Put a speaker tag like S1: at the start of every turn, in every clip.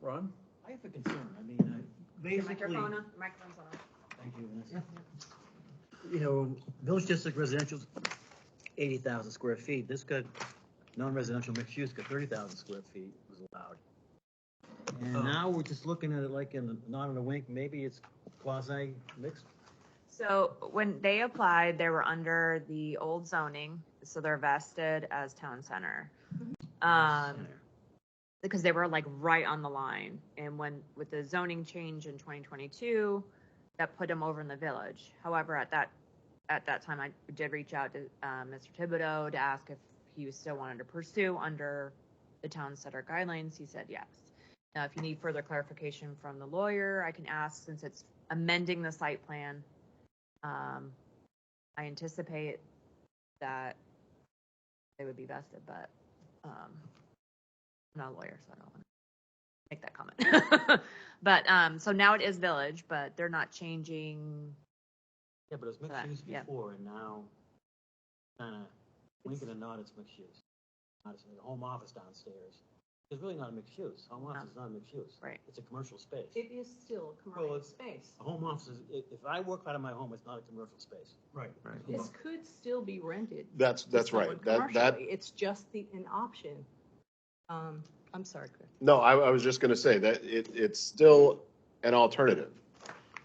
S1: Ron?
S2: I have a concern, I mean,
S3: Your
S4: Basically,
S3: microphone on, microphone's on.
S2: I, thank you, Vanessa.
S1: You know, village district residential's eighty thousand square feet, this could, non-residential mixed use could thirty thousand square feet was allowed. And
S4: Oh.
S1: now we're just looking at it like in, a- not in a wink, maybe it's quasi mixed.
S3: So when they applied, they were under the old zoning, so they're vested as town center. Um,
S1: center.
S3: because they were like right on the line. And when, with the zoning change in twenty twenty-two, that put them over in the village. However, at that, at that time, I did reach out to, uh, Mr. Thibodeau to ask if he still wanted to pursue under the town center guidelines. He said yes. Now, if you need further clarification from the lawyer, I can ask since it's amending the site plan. Um, I anticipate that they would be vested, but, um, I'm not a lawyer, so I don't want to make that comment. but um, so now it is village, but they're not changing.
S1: Yeah, but it was mixed
S3: Correct,
S1: use
S3: yeah.
S1: before and now, kinda, wink and a nod, it's mixed use. Not it's like a home office downstairs, it's really not a mixed use, home office is not a mixed use.
S3: Right.
S1: It's a commercial space.
S4: it is still a
S1: Well,
S4: commercial
S1: it's-
S4: space.
S1: A home office is, if, if I work out of my home, it's not a commercial space.
S2: Right.
S4: This could still be rented.
S5: That's,
S4: to
S5: that's
S4: someone
S5: right. That, that,
S4: commercially. It's just the, an option. Um, I'm sorry, Chris.
S5: no, I, I was just gonna say that it, it's still an alternative.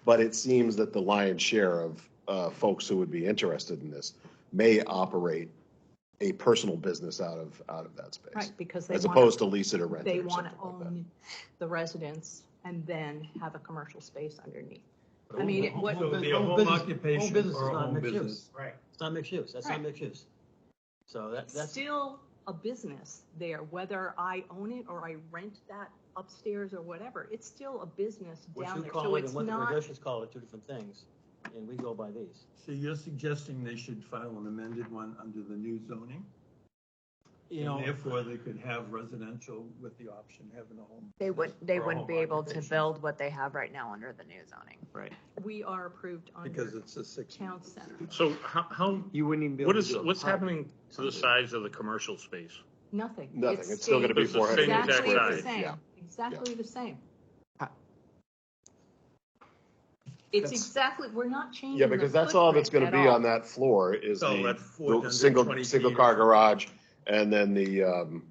S5: But it seems that the lion's share of, uh, folks who would be interested in this may operate a personal business out of, out of that
S4: Right,
S5: space.
S4: because they
S5: As
S4: want,
S5: opposed to lease it or rent
S4: they
S5: it or
S4: want to
S5: something like that.
S4: own the residence and then have a commercial space underneath.
S1: But
S4: I mean,
S1: home-
S4: it- what-
S1: home-
S6: So it'd be a
S1: home
S6: home
S1: business-
S6: occupation
S1: home business
S6: or
S1: is
S6: a
S1: not
S6: home
S1: mixed use.
S6: business.
S2: Right.
S1: It's not mixed use, that's not
S4: Right.
S1: mixed use. So that,
S4: It's
S1: that's,
S4: still a business there, whether I own it or I rent that upstairs or whatever. It's still a business
S1: what
S4: down
S1: you
S4: there. So
S1: call it
S4: it's
S1: and what the
S4: not,
S1: regulations call it, two different things, and we go by these.
S6: So you're suggesting they should file an amended one under the new zoning?
S1: You
S6: And
S1: know,
S6: therefore, they could have residential with the option of having a home.
S3: They would. They
S6: or a
S3: wouldn't
S6: home
S3: be able to
S6: occupation,
S3: build what they have right now under the new zoning.
S4: we are approved
S6: Because
S4: under
S6: it's a six.
S4: town center.
S7: So how, how,
S1: you wouldn't even be able
S7: what
S1: to
S7: is,
S1: do it.
S7: what's happening to the size of the commercial space?
S4: Nothing.
S5: Nothing. It's still gonna be
S4: stays
S7: It's
S5: 400
S7: the same exact
S4: Exactly the
S7: size.
S4: same,
S5: Yeah.
S4: exactly the same. It's
S5: That's-
S4: exactly, we're not changing.
S5: Yeah, because
S4: the
S5: that's all that's gonna
S4: footprint
S5: be
S4: at
S5: on that floor is
S6: So
S5: the,
S6: that's
S5: the
S6: 420
S5: single,
S6: feet.
S5: single car garage and then the, um,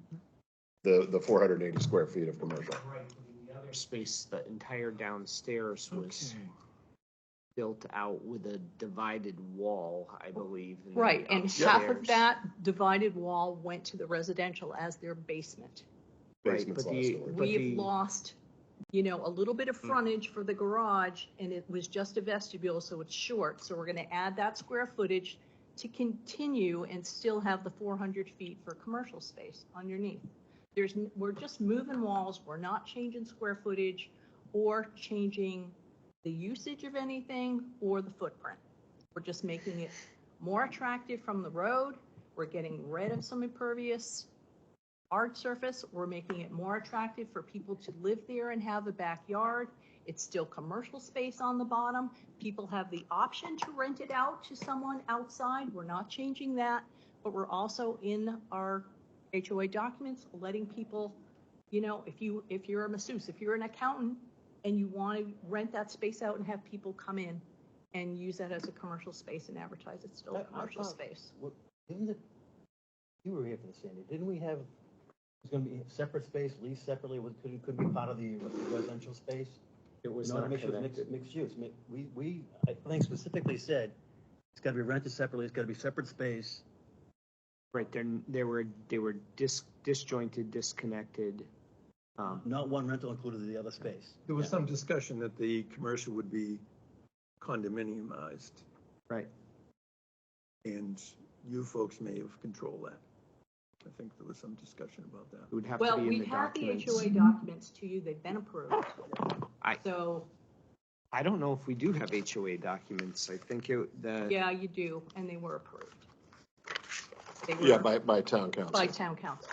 S5: the, the four hundred and eighty square feet of commercial.
S8: Right, I mean, the other space, the entire downstairs was built out with a divided wall, I believe. in
S4: all.
S8: the
S4: Right, and half of
S8: upstairs.
S4: that divided wall went to the residential as their basement.
S8: Right,
S5: Basement's
S8: but
S5: last
S8: the-
S5: story.
S8: But
S4: We've
S8: the-
S4: lost, you know, a little bit of frontage for the garage and it was just a vestibule, so it's short. So we're gonna add that square footage to continue and still have the four hundred feet for commercial space underneath. There's, n- we're just moving walls, we're not changing square footage or changing the usage of anything or the footprint. We're just making it more attractive from the road. We're getting rid of some impervious hard surface. We're making it more attractive for people to live there and have a backyard. It's still commercial space on the bottom. People have the option to rent it out to someone outside. We're not changing that. But we're also in our HOA documents, letting people, you know, if you, if you're a masseuse, if you're an accountant and you want to rent that space out and have people come in and use that as a commercial space and advertise it's still
S1: I- I
S4: a commercial
S1: thought-
S4: space.
S1: What- Didn't it, you were here for the Sandy, didn't we have, it's gonna be separate space, leased separately, was, couldn't, couldn't be part of the residential space?
S8: It was
S1: No,
S8: not
S1: mixed use,
S8: connected.
S1: mixed- Mixed use, Mi- we, we, I think specifically said, it's gotta be rented separately, it's gotta be separate space.
S8: Right, there, there were, they were dis, disjointed, disconnected. Um,
S1: Not one rental included in the other space.
S6: There was some discussion that the commercial would be condominiumized,
S8: right,
S6: and you folks may have controlled that. I think there was some discussion about that.
S8: it would have to
S4: Well,
S8: be in
S4: we
S8: the
S4: have the
S8: documents.
S4: HOA documents to you. They've been approved.
S8: I-
S4: So,
S8: I don't know if we do have HOA documents. I think it, the,
S4: yeah, you do, and they were approved. They were
S5: Yeah, by, by town council.
S4: By town council.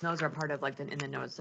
S3: Those are part of like the in the notice